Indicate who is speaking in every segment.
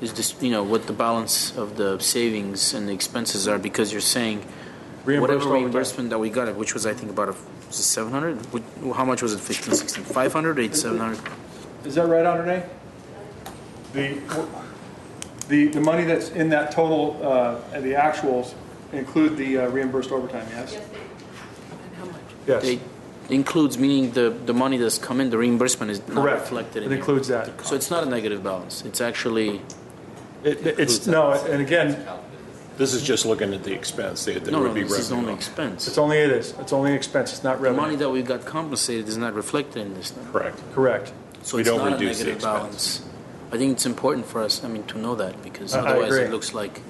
Speaker 1: is this, you know, what the balance of the savings and the expenses are, because you're saying
Speaker 2: Reimbursed
Speaker 1: whatever
Speaker 2: all the time.
Speaker 1: reimbursement that we got, which was, I think, about a, was it seven hundred? How much was it, fifteen, sixteen, five hundred, eight, seven hundred?
Speaker 2: Is that right, Andre? The, the, the money that's in that total, uh, and the actuals include the uh, reimbursed overtime, yes?
Speaker 1: It includes, meaning the, the money that's come in, the reimbursement is not
Speaker 2: Correct.
Speaker 1: reflected
Speaker 2: It
Speaker 1: in here.
Speaker 2: includes that.
Speaker 1: So it's not a negative balance, it's actually,
Speaker 2: It, it's, no, and again,
Speaker 3: This is just looking at the expense that that
Speaker 1: no,
Speaker 3: would
Speaker 1: no,
Speaker 3: be
Speaker 1: this is only
Speaker 3: revenue.
Speaker 2: it's
Speaker 1: expense.
Speaker 2: only it is, it's only expense, it's not
Speaker 1: The money
Speaker 2: revenue.
Speaker 1: that we got compensated is not reflected in this number.
Speaker 3: Correct.
Speaker 2: Correct.
Speaker 1: So
Speaker 3: We
Speaker 1: it's
Speaker 3: don't
Speaker 1: not a
Speaker 3: reduce the
Speaker 1: negative
Speaker 3: expense.
Speaker 1: balance. I think it's important for us, I mean, to know that because
Speaker 2: I- I
Speaker 1: otherwise it
Speaker 2: agree.
Speaker 1: looks like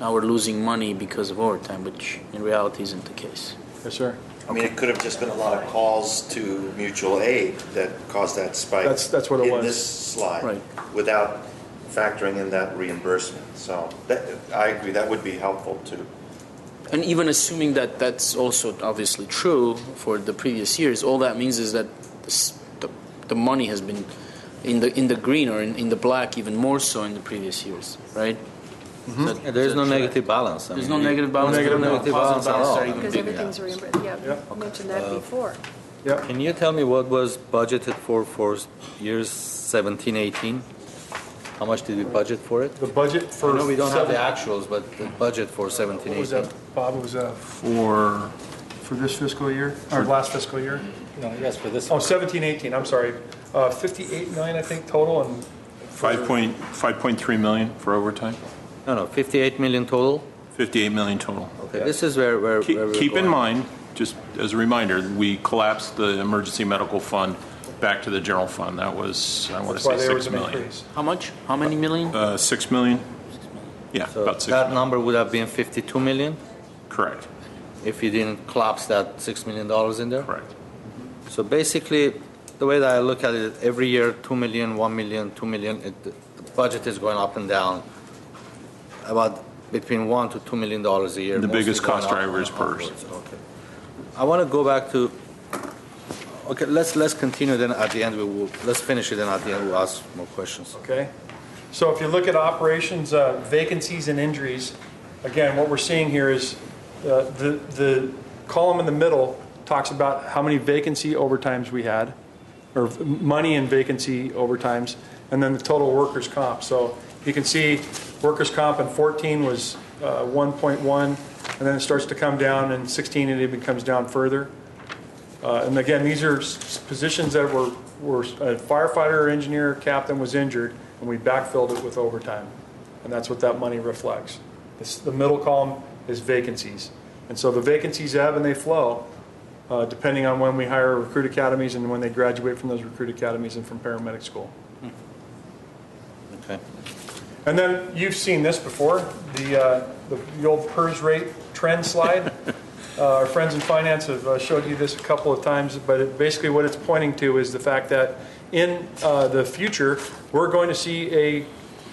Speaker 1: now we're losing money because of overtime, which in reality isn't the case.
Speaker 2: Yes, sir.
Speaker 4: I mean, it could have just been a lot of calls to mutual aid that caused that spike.
Speaker 2: That's- that's what it was.
Speaker 4: In this slide.
Speaker 1: Right.
Speaker 4: Without factoring in that reimbursement. So that, I agree, that would be helpful too.
Speaker 1: And even assuming that that's also obviously true for the previous years, all that means is that this, the, the money has been in the in the green or in, in the black even more so in the previous years, right? Is that-
Speaker 5: Yeah, There is
Speaker 1: is
Speaker 5: no
Speaker 1: that correct?
Speaker 5: negative balance. I
Speaker 1: There's no
Speaker 3: Mm-hmm.
Speaker 5: mean,
Speaker 1: negative balance.
Speaker 2: negative
Speaker 1: no
Speaker 5: balance.
Speaker 1: positive
Speaker 5: Balance at all.
Speaker 1: are even
Speaker 6: Because
Speaker 1: bigger.
Speaker 6: everything's reimbursed, yeah,
Speaker 2: Yeah.
Speaker 6: we mentioned that before.
Speaker 2: Yep,
Speaker 5: Can you tell me what was budgeted for for years 17, 18? How much did we budget for it?
Speaker 2: the budget for.
Speaker 5: I know we don't have the
Speaker 2: seven-
Speaker 5: actuals, but the budget for 17,
Speaker 2: What was
Speaker 5: 18.
Speaker 2: that, Bob, It was that
Speaker 3: For,
Speaker 2: for this fiscal year, or last fiscal year?
Speaker 5: No, yes, for this.
Speaker 2: Oh, 17, 18, I'm sorry. Uh, 58 million, I think, total, and
Speaker 3: five point, five point three million for overtime,
Speaker 5: No, no, 58 million total.
Speaker 3: fifty-eight million total.
Speaker 5: Okay, this is where, where. where
Speaker 3: Keep,
Speaker 5: we're
Speaker 3: keep in
Speaker 5: going.
Speaker 3: mind, just as a reminder, we collapsed the emergency medical fund back to the general fund. That was, I want to
Speaker 2: that's why
Speaker 3: say
Speaker 2: there
Speaker 3: six
Speaker 2: was an
Speaker 3: million.
Speaker 2: increase.
Speaker 1: How much? How many million?
Speaker 3: Uh, six million? Yeah,
Speaker 5: So
Speaker 3: about six
Speaker 5: That
Speaker 3: million,
Speaker 5: number would have been 52 million
Speaker 3: correct,
Speaker 5: if you didn't collapse that $6 million in there.
Speaker 3: correct.
Speaker 5: So basically, the way that I look at it, every year, 2 million, 1 million, 2 million, it, the budget is going up and down about between 1 to 2 million dollars a year.
Speaker 3: The
Speaker 5: mostly
Speaker 3: biggest
Speaker 5: going
Speaker 3: cost
Speaker 5: up
Speaker 3: driver is
Speaker 5: and
Speaker 3: PERS.
Speaker 5: upwards. Okay. I want to go back to, okay, let's, let's continue then at the end, we will, let's finish it and at the end we'll ask more questions.
Speaker 2: Okay? So if you look at operations, uh, vacancies and injuries, again, what we're seeing here is uh, the, the column in the middle talks about how many vacancy overtimes we had, or money in vacancy overtimes, and then the total workers' comp. So you can see workers' comp in 14 was uh, 1.1, and then it starts to come down, in 16 it even comes down further. Uh, And again, these are s- positions that were, were a firefighter or engineer captain was injured, and we backfilled it with overtime. And that's what that money reflects. This, the middle column is vacancies. And so the vacancies ebb and they flow, uh, depending on when we hire recruit academies and when they graduate from those recruit academies and from paramedic school.
Speaker 5: Okay.
Speaker 2: And then you've seen this before, the, uh, the the old PERS rate trend slide. Uh, Our friends in finance have uh, showed you this a couple of times, but it- basically what it's pointing to is the fact that in uh, the future, we're going to see a,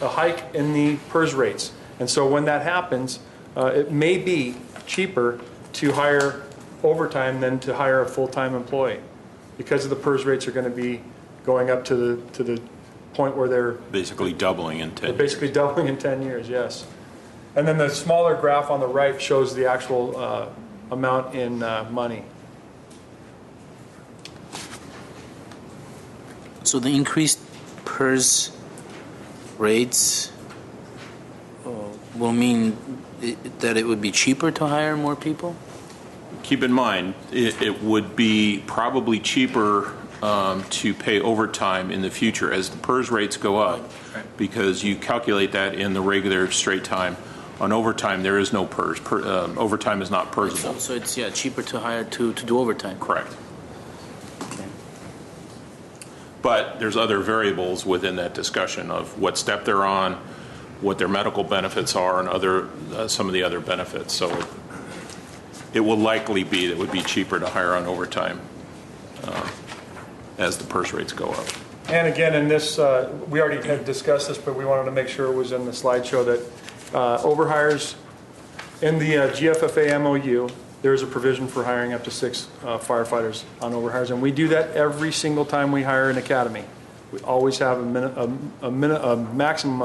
Speaker 2: a hike in the PERS rates. And so when that happens, uh, it may be cheaper to hire overtime than to hire a full-time employee because of the PERS rates are going to be going up to the, to the point where they're
Speaker 3: Basically doubling in ten
Speaker 2: they're
Speaker 3: years.
Speaker 2: basically doubling in 10 years, yes. And then the smaller graph on the right shows the actual uh, amount in uh, money.
Speaker 1: So the increased PERS rates uh, will mean i that it would be cheaper to hire more people.
Speaker 3: keep in mind, it, it would be probably cheaper um, to pay overtime in the future as the PERS rates go up, because you calculate that in the regular straight time. On overtime, there is no PERS. Per, um, overtime is not
Speaker 1: So,
Speaker 3: PERSable.
Speaker 1: so it's yeah cheaper to hire to to do overtime.
Speaker 3: Correct. But there's other variables within that discussion of what step they're on, what their medical benefits are, and other uh, some of the other benefits. So it, it will likely be that it would be cheaper to hire on overtime uh, as the purse rates go up.
Speaker 2: And again, in this, uh, we already had discussed this, but we wanted to make sure it was in the slideshow that uh, overhires, in the uh, GFFA MOU, there is a provision for hiring up to six uh, firefighters on overhires. And we do that every single time we hire an academy. We always have a minute, a minute, a maximum